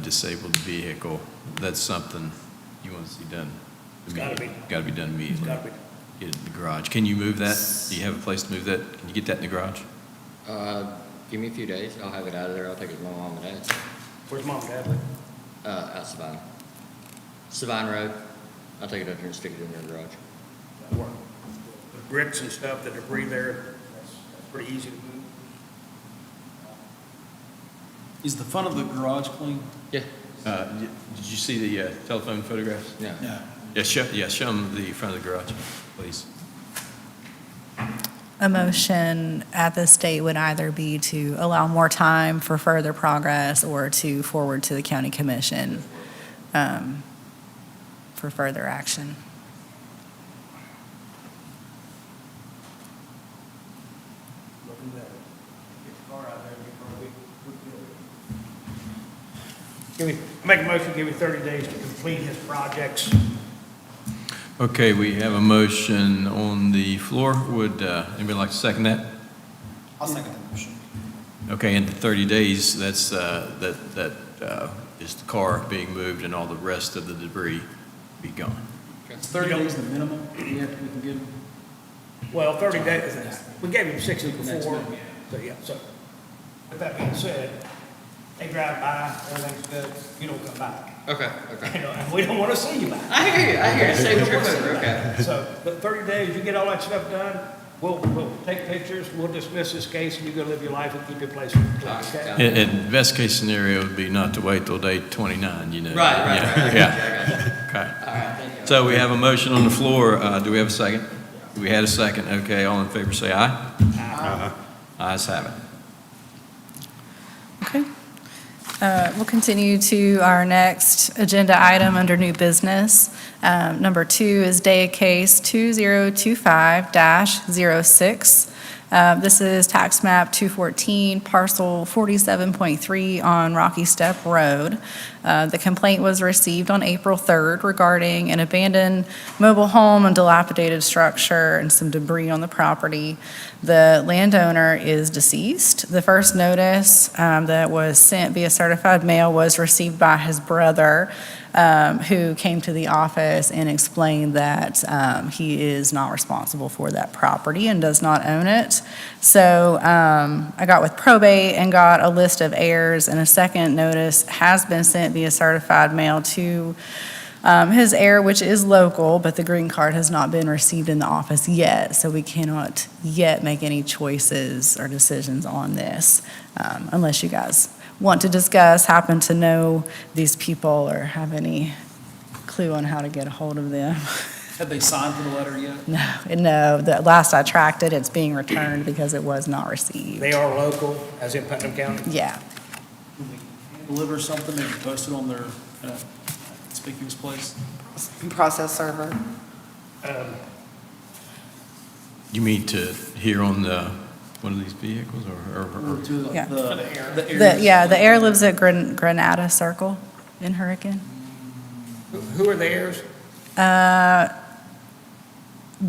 disabled vehicle, that's something you want to see done. It's gotta be. Got to be done It's Mm-hmm. immediately. gotta be. Get it in the garage. Can you move that? Do you have a place to move that? Can you get that in the garage? Uh, give me a few days. I'll have it out of there. I'll take it to my mom and dad. Where's mom and dad live? Uh, out Savine. Savine Road. I'll take it up here and stick it in their garage. That work. The bricks and stuff, the debris there, that's that's pretty easy to move. Is the front of the garage clean? Yeah. Uh, y- Did you see the uh, telephone photographs? No. No. Yeah, show, yeah, show them the front of the garage, please. A motion at this date would either be to allow more time for further progress or to forward to the county commission um, for further action. Looking better. Get the car out there, get the car, we, we Give me, I make a motion, give me thirty days to complete his projects. Okay, we have a motion on the floor. Would uh, anybody like to second that? I'll second the motion. Okay, in 30 days, that's, uh, that, that uh, is the car being moved and all the rest of the debris be gone. It's 30 days the minimum we have, we can give them. Well, thirty days, we gave him sixty Next before, month. so, yeah, so, with that being said, they drive by, everything's good, you don't come back. Okay, You okay. know, and we don't wanna see you back. I hear you. I hear you. Save the We don't wanna trip see over. you Okay. back. So, but thirty days, you get all that stuff done, we'll, we'll take pictures, we'll dismiss this case, and you go live your life and keep your place All right, clean, okay? got it. And, and best case scenario would be not to wait till day 29, you know? Right, right, right. I got you, Yeah, I got you. yeah, okay. All right, thank you. So we have a motion on the floor. Uh, Do we have a second? We had a second. Okay, all in favor, say aye. Aye. Ayes have it. Okay. Uh, We'll continue to our next agenda item under new business. Um, Number two is day case 2025-06. Uh, This is tax map 214, parcel 47.3 on Rocky Step Road. Uh, The complaint was received on April 3rd regarding an abandoned mobile home and dilapidated structure and some debris on the property. The landowner is deceased. The first notice um, that was sent via certified mail was received by his brother, um, who came to the office and explained that um, he is not responsible for that property and does not own it. So um, I got with probate and got a list of heirs, and a second notice has been sent via certified mail to um, his heir, which is local, but the green card has not been received in the office yet, so we cannot yet make any choices or decisions on this, um, unless you guys want to discuss, happen to know these people, or have any clue on how to get a hold of them. Have they signed for the letter yet? No, no, the last I tracked it, it's being returned because it was not received. They are local, as in Putnam County. Yeah, Can we deliver something and post it on their uh, conspicuous place? process server. Um, You mean to hear on the, one of these vehicles or- or? Or or- to the, Yeah. the the, heirs? yeah, the heir lives at Gran- Granada Circle in Hurricane. who- Who are the heirs? Uh,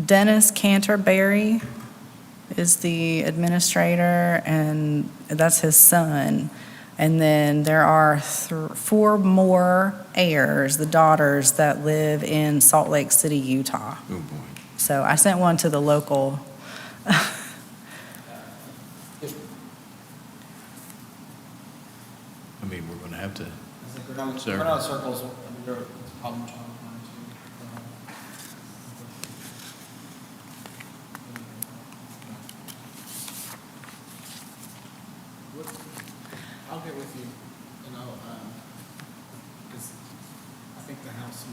Dennis Canterbury is the administrator, and that's his son. And then there are thr- four more heirs, the daughters, that live in Salt Lake City, Utah. Oh, boy. So I sent one to the local. I mean, we're going to have to, I think Granada Sir. Granada Circle's, I mean, they're a problem child for them, too. I'll get with you, and I'll, um, because I think the house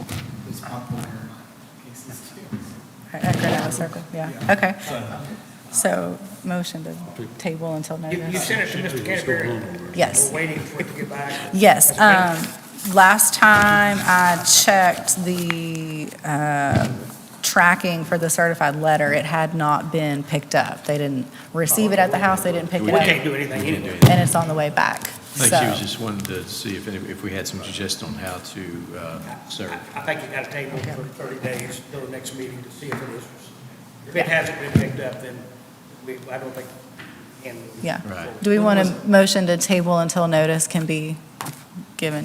is popular in my cases too. At Granada Circle, yeah, okay. So motion to table until You, you notice. sent it to Mr. Canterbury. Yes. We're waiting for it to get back. Yes, That's um, last time I checked the, uh, tracking for the certified letter, it had not been picked up. They didn't receive it at the house, they didn't pick We it can't up, do anything we can do anyway. it. and it's on the way back, I think she was so. just wanting to see if, any- if we had some suggestion on how to uh, serve. I think you got to table it for 30 days till the next meeting to see if it is. If Yeah. it hasn't been picked up, then we, I don't think, and. Yeah. Right. Do we want a motion to table until notice can be